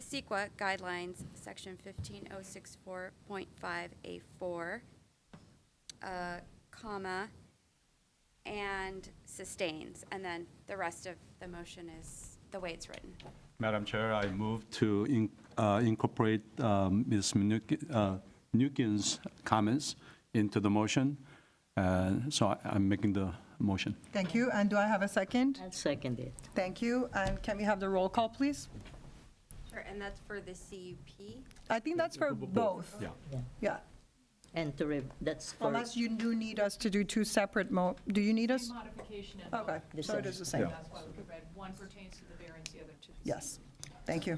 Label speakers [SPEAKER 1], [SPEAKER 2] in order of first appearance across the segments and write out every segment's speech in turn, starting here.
[SPEAKER 1] CEQA E guidelines, section fifteen oh six four point five A four, uh, comma, and sustains, and then the rest of the motion is the way it's written.
[SPEAKER 2] Madam Chair, I move to in- uh, incorporate um, Ms. Mnuchin- uh, Mnuchin's comments into the motion. And so I- I'm making the motion.
[SPEAKER 3] Thank you. And do I have a second?
[SPEAKER 4] I'll second it.
[SPEAKER 3] Thank you. And can we have the roll call, please?
[SPEAKER 1] Sure, and that's for the CUP?
[SPEAKER 3] I think that's for both.
[SPEAKER 2] Yeah.
[SPEAKER 3] Yeah.
[SPEAKER 4] And to, re- that's for,
[SPEAKER 3] Unless you do need us to do two separate mo, do you need us?
[SPEAKER 5] modification, and
[SPEAKER 3] Okay,
[SPEAKER 4] The
[SPEAKER 3] so it
[SPEAKER 4] same.
[SPEAKER 3] is the same.
[SPEAKER 5] that's why we read, one pertains to the variance, the other to the.
[SPEAKER 3] Yes. Thank you.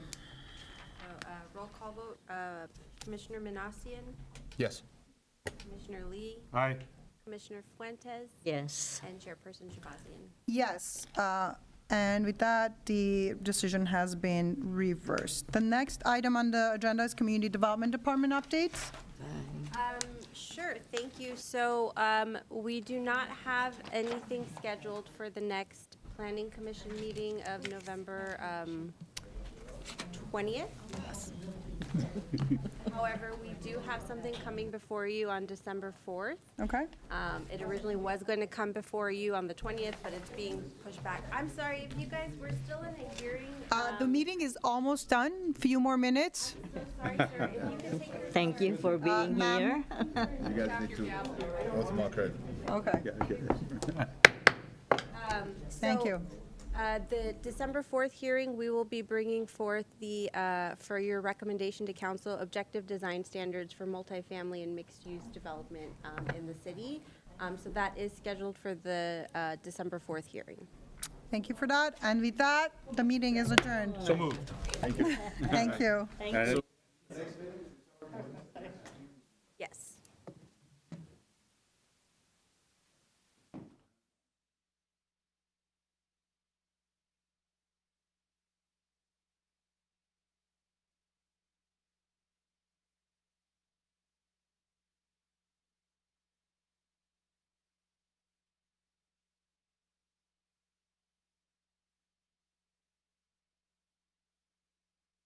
[SPEAKER 6] So, uh, Roll call vote, uh, Commissioner Minasian,
[SPEAKER 7] Yes.
[SPEAKER 6] Commissioner Lee,
[SPEAKER 7] Aye.
[SPEAKER 6] Commissioner Fuentes,
[SPEAKER 4] yes,
[SPEAKER 6] and Chairperson Shabazzian.
[SPEAKER 3] Yes, uh, and with that, the decision has been reversed. The next item on the agenda is Community Development Department updates.
[SPEAKER 6] Um, Sure, thank you. So um, we do not have anything scheduled for the next Planning Commission meeting of November um, 20th. However, we do have something coming before you on December 4th.
[SPEAKER 3] Okay?
[SPEAKER 6] Um, It originally was going to come before you on the 20th, but it's being pushed back. I'm sorry, if you guys were still in a hearing, Um,
[SPEAKER 3] Uh, The meeting is almost done, few more minutes.
[SPEAKER 6] I'm so sorry, sir, if you could take your
[SPEAKER 4] thank you for being here.
[SPEAKER 7] You guys need to oath marker.
[SPEAKER 3] Okay, thank
[SPEAKER 6] So,
[SPEAKER 3] you.
[SPEAKER 6] uh, The December 4th hearing, we will be bringing forth the, uh, for your recommendation to council, objective design standards for multifamily and mixed-use development um, in the city. Um, So that is scheduled for the uh, December 4th hearing.
[SPEAKER 3] Thank you for that. And with that, the meeting is adjourned.
[SPEAKER 7] So moved.
[SPEAKER 3] Thank you.
[SPEAKER 4] Thank you.